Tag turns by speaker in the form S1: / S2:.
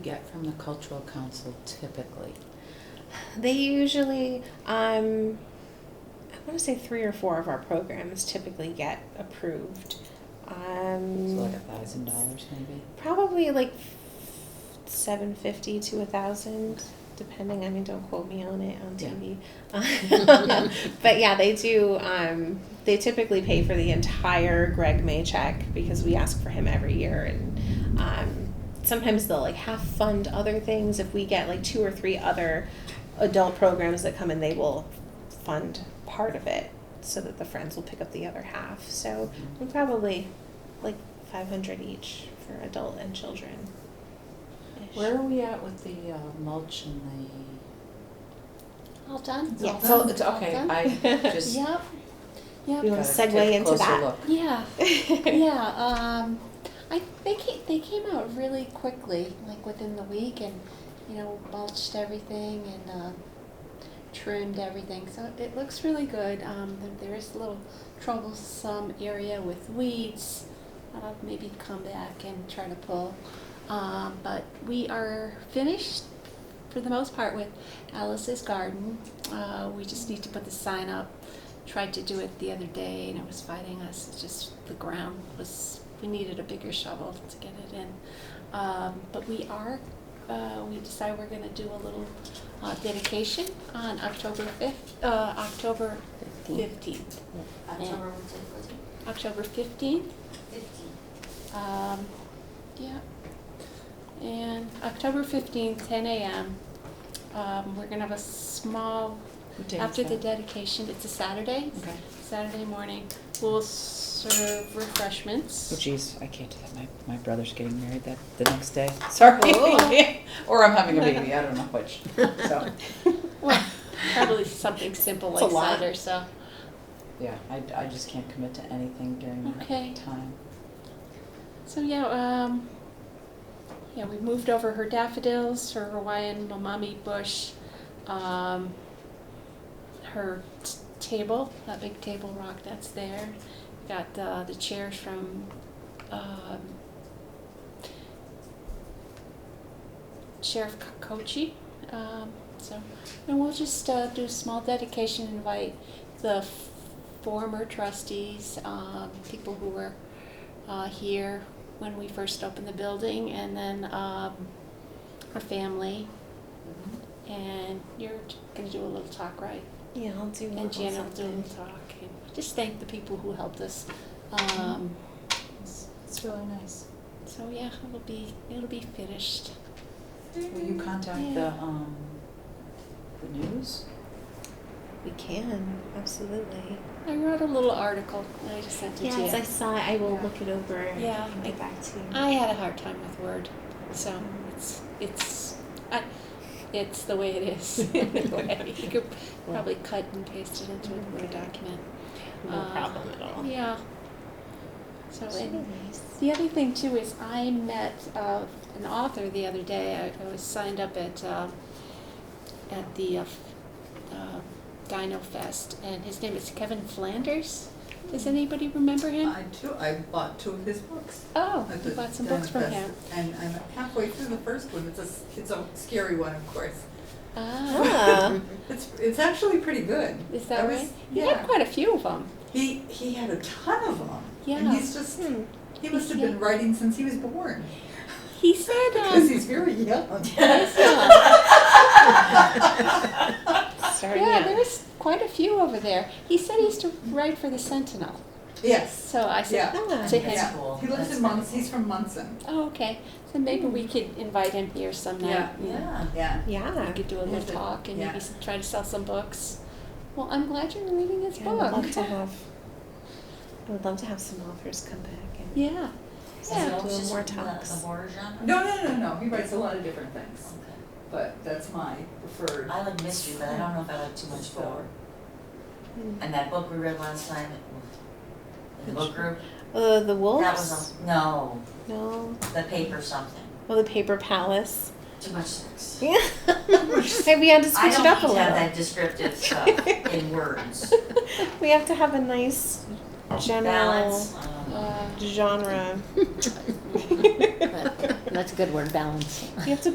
S1: get from the cultural council typically?
S2: They usually, um, I want to say three or four of our programs typically get approved.
S1: So like
S2: Um,
S1: a thousand dollars maybe?
S2: probably like seven fifty to a thousand, depending. I mean, don't quote me on it on
S1: Yeah.
S2: TV. but yeah, they do. Um, they typically pay for the entire Greg May check because we ask for him every year, and um, sometimes they'll like half fund other things if we get like two or three other adult programs that come in. They will fund part of it so that the friends will pick up the other half. So we probably like five hundred each for adult and children.
S1: Where are we at with the uh, mulch and the?
S3: All done?
S2: Yeah. Yes.
S1: So it's okay. I just.
S3: Yep,
S2: You
S3: yep,
S2: wanna
S1: gotta take
S2: segue
S1: a
S2: into
S1: closer
S2: that?
S1: look.
S3: yeah, yeah, um, I, they came, they came out really quickly, like within the week and, you know, mulched everything and, uh, trimmed everything, so it looks really good, um, there- there is a little troublesome area with weeds, I'll maybe come back and try to pull, um, but we are finished for the most part with Alice's garden, uh, we just need to put the sign up tried to do it the other day and it was fighting us. It's just the ground was, we needed a bigger shovel to get it in. Um, but we are, uh, we decided we're going to do a little uh, dedication on October 5th, uh, October 15th.
S4: October what's it, what's it?
S3: October 15th.
S4: Fifteen.
S3: Um, yeah. And October 15th, 10 a.m. Um, we're going to have a small,
S1: Who takes
S3: after the
S1: that?
S3: dedication, it's a Saturday,
S1: Okay.
S3: Saturday morning, we'll serve refreshments.
S1: Oh geez, I can't do that. My, my brother's getting married that, the next day. Sorry. Or I'm having a baby, I don't know which, so,
S3: Well, probably something simple
S2: It's a
S3: like
S2: lot.
S3: cider, so.
S1: yeah, I, I just can't commit to anything during
S3: Okay.
S1: that time.
S3: So yeah, um, yeah, we moved over her daffodils, her Hawaiian mamami bush, um, her t- table, that big table rock that's there. Got uh, the chairs from um, Sheriff Kochi. Um, so, and we'll just uh, do a small dedication, invite the f- former trustees, um, people who were uh, here when we first opened the building, and then um, her family.
S1: Mm-hmm.
S3: And you're going to do a little talk, right?
S2: Yeah, I'll do.
S3: And Jan will do a little talk. And just thank the people who helped us.
S2: Mm-hmm.
S3: Um,
S1: It's, it's really nice.
S3: so yeah, it'll be it'll be finished.
S1: Will you contact the, um, the news?
S2: We can absolutely.
S3: I wrote a little article and I just sent it
S2: Yes,
S3: to
S2: I
S3: you.
S2: saw it. I will look it over.
S3: Yeah,
S2: and get back to you.
S3: I, had a hard time with Word, so it's it's I, it's the way it is. Anyway, you could probably cut and paste it into a Word document.
S2: no
S3: uh,
S2: problem at all.
S3: Yeah. So
S2: It's
S3: and
S2: really nice.
S3: the other thing too is I met uh, an author the other day. I, I was signed up at uh, at the uh, f- uh, Dino Fest, and his name is Kevin Flanders. Does anybody remember him?
S5: I too, I bought two of his books.
S3: oh,
S5: I
S3: you
S5: did.
S3: bought some books from
S5: That's-
S3: him.
S5: And I'm halfway through the first one, it's a, s- it's a scary one, of course.
S3: Ah,
S2: Ah,
S5: It's, it's actually pretty good.
S3: is that
S5: I was-
S3: right? He had
S5: Yeah,
S3: quite a few of them.
S5: he, he had a ton of them. And
S3: Yeah.
S5: he's just,
S2: hmm.
S5: he must have been writing since he was born,
S3: He said,
S5: because
S3: um,
S5: he's very young.
S2: Starting
S3: yeah,
S2: out.
S3: there's quite a few over there. He said he used to write for the Sentinel.
S5: Yes,
S3: So I said,
S5: Yeah.
S2: Ah,
S3: to him,
S5: yeah.
S1: cool.
S5: He lives
S1: That's
S5: in Munson, he's from Munson.
S3: Oh, okay. So maybe we could invite him here some night. and
S5: Yeah.
S3: We
S2: Yeah.
S3: could do a little
S5: Yeah.
S3: talk and maybe
S5: Yeah.
S3: s- try to sell some books. Well, I'm glad you're reading his
S2: Yeah, I would love to
S3: book.
S2: have. I would love to have some authors come back and
S3: Yeah.
S2: Yeah.
S3: Yeah.
S2: Do
S4: It's just
S2: more
S4: the-
S2: talks.
S4: The horror genre?
S5: No, no, no, no, he writes a lot of different things,
S4: Okay.
S5: but that's my preferred.
S4: I like mystery, but I don't know if I like too much horror.
S2: Hmm.
S4: And that book we read last time, it- the book group,
S2: Uh, the wolves.
S4: that was, a- no,
S2: no.
S4: the paper something,
S2: Well, the paper palace.
S4: too much sex.
S2: Yeah. Maybe we had to
S4: I
S2: switch
S4: don't
S2: it up a
S4: need
S2: little.
S4: to have that descriptive stuff in words.
S2: we have to have a nice general
S4: Balance, um, I don't know.
S3: Uh,
S2: genre.
S1: That's a good word, balance.
S2: You have to